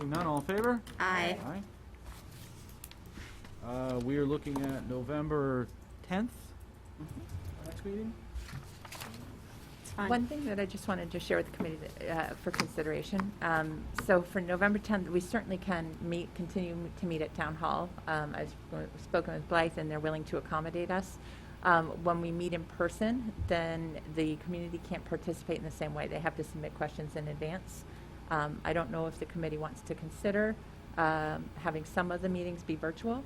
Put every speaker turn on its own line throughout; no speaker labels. Hearing none, all in favor?
Aye.
Aye. Uh, we are looking at November tenth, next meeting?
It's fine.
One thing that I just wanted to share with the committee that, uh, for consideration, um, so for November 10th, we certainly can meet, continue to meet at Town Hall. Um, I've sp- spoken with Blythe, and they're willing to accommodate us. Um, When we meet in person, then the community can't participate in the same way. They have to submit questions in advance. Um, I don't know if the committee wants to consider um, having some of the meetings be virtual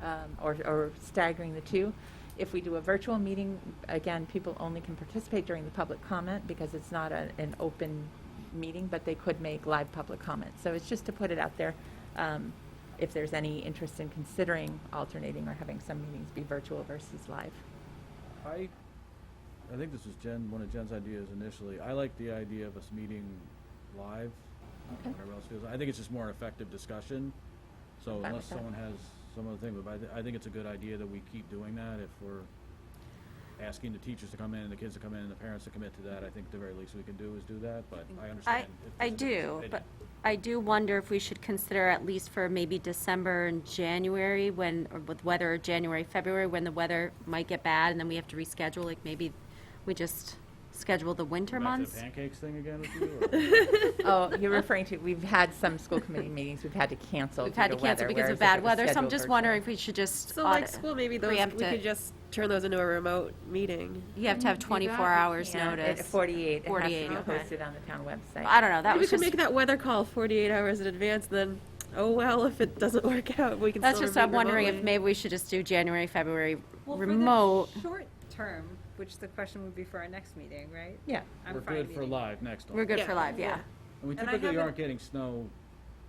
um, or or staggering the two. If we do a virtual meeting, again, people only can participate during the public comment because it's not a- an open meeting, but they could make live public comments. So it's just to put it out there, um, if there's any interest in considering alternating or having some meetings be virtual versus live.
I, I think this was Jen, one of Jen's ideas initially. I like the idea of us meeting live. I don't know
Okay.
Whatever else feels, I think it's just more an effective discussion. So
I'm fine
unless
with that.
someone has some other thing, but I, thi- I think it's a good idea that we keep doing that if we're asking the teachers to come in and the kids to come in and the parents to commit to that. I think the very least we can do is do that, but I
I,
understand. if
I
there's a difference of
do, but
opinion.
I do wonder if we should consider at least for maybe December and January when, or with weather, or January, February, when the weather might get bad and then we have to reschedule, like maybe we just schedule the winter
Go back to the
months.
Pancakes thing again with you, or?
Oh, you're referring to, we've had some school committee meetings we've had to cancel due
We've
to
had
weather.
to cancel because
whereas
of
if
bad
it was
weather, so I'm
scheduled
just
virtual-
wondering if we should just.
So like
audit-
school, maybe those,
preempt
we could
it.
just turn those into a remote meeting.
You have to have
Do that,
24
you
hours
can't. It-
notice.
48, it has
48,
to be
okay.
posted on the town website.
I don't know, that
Maybe we
was
could
just,
make that weather call 48 hours in advance, then, oh, well, if it doesn't work out, we can
that's
still
just, I'm
review
wondering if
remotely.
maybe we should just do January, February
Well,
remote.
For the short term, which the question would be for our next meeting, right?
Yeah.
I'm
We're
fine
good for
meeting.
live next one.
We're good
Yeah.
for live, yeah.
And we
And I
typically
haven't-
aren't getting snow,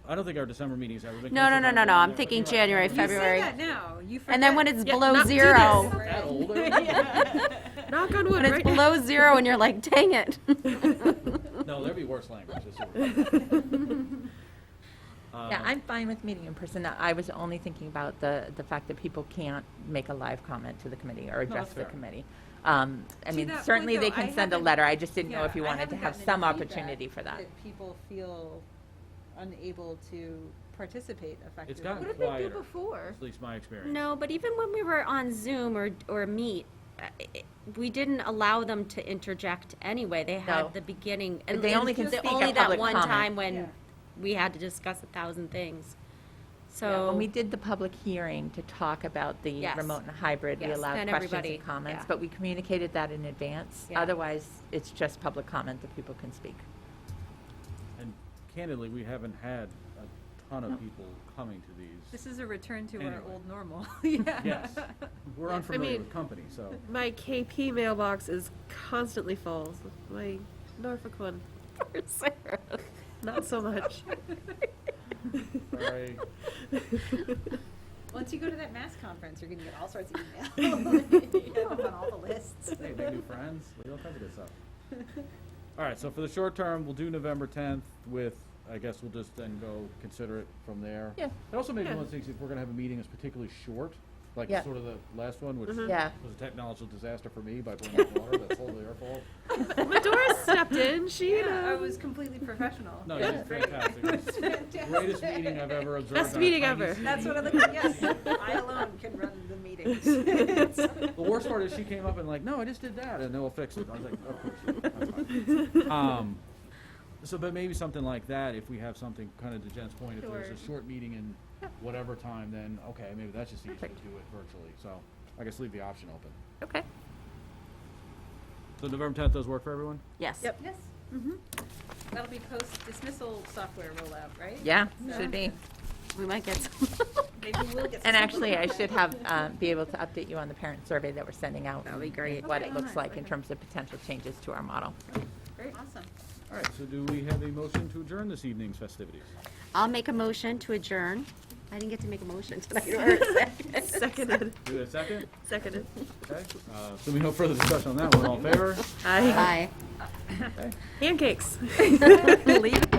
I don't think our December meetings ever been.
No, no,
canceled
no,
out
no,
of
no, I'm
order, but
thinking
you're right.
January, February.
You say that now, you forget.
And then when it's
Yeah,
below
not do
zero,
this.
That old, are we?
Knock on wood,
when it's
right? now.
below zero and you're like, dang it.
No, there'd be worse language. that's what we're-
Yeah,
Um,
I'm fine with meeting in person. I was only thinking about the, the fact that people can't make a live comment to the committee or address
that's
the
fair.
committee. Um, I
To
mean,
that point,
certainly they
though, I
can send a
haven't-
letter. I just didn't know
Yeah,
if you
I
wanted to
haven't
have
gotten any
some
feedback
opportunity for that.
That people feel unable to participate effectively.
gotten
What if-
What did they do
before?
At least my experience.
No, but even when we were on Zoom or, or Meet, uh, i- we didn't allow them to interject anyway. They
No.
had the beginning. and-
They
and
only can
just
speak at
only
public
that one
comment.
time
Yeah.
when we had to discuss a thousand things.
Yeah, When we
So,
did the public hearing to talk about the
Yes.
remote and hybrid, we
Yes,
allowed
then
questions
everybody-
and comments,
yeah.
but we communicated that in advance.
Yeah.
Otherwise, it's just public comment that people can speak.
And candidly, we haven't had a ton of people coming to these.
This is a return to our
Anyway.
old normal, yeah.
Yes. We're unfamiliar
mean-
with company, so.
My KP mailbox is constantly full. My Norfolk one, not so much.
Sorry.
Once you go to that mass conference, you're gonna get all sorts of emails. You end up on all the lists.
Hey, make new friends. We all kinds of good stuff. All right, so for the short term, we'll do November tenth with, I guess we'll just then go consider it from there.
Yeah.
It also makes
Yeah.
one of the things, if we're gonna have a meeting that's particularly short, like
Yeah.
sort of the last one, which
Mhm.
was
Yeah.
a technological disaster for me by pouring out water, that's totally our fault.
Medora stepped in, she, you
Yeah, I
know,
was completely professional.
No, you did fantastic. It was the Greatest meeting I've ever observed.
Best
on a
meeting
tiny
ever.
scene.
That's what I look at, yes, I alone can run the meetings.
The worst part is she came up and like, no, I just did that, and they'll fix it. I was like, of course. you did. That's fine." Um, so, but maybe something like that, if we have something kind of to Jen's point, if there's a
Sure.
short meeting in whatever time, then, okay, maybe that's just easier to do
Perfect.
it virtually, so I guess leave the option open.
Okay.
So November tenth does work for everyone?
yes.
Yep.
Yes, mm-hmm. That'll be post dismissal software rollout, right?
Yeah,
So-
should be.
We might get some.
Maybe we'll get.
And
some-
actually, I should have, um, be able to update you on the parent survey that we're sending out.
That'd be
and
great.
What
Okay,
it looks
nice,
like in
okay.
terms of potential changes to our model.
Great, awesome.
All right, so do we have a motion to adjourn this evening's festivities?
I'll make a motion to adjourn. I didn't get to make a motion tonight or a second.
seconded,
Do we have a second?
seconded.
Okay, uh, so we no further discussion on that one, all in favor?
Aye.
Aye.
Pancakes.
Leave it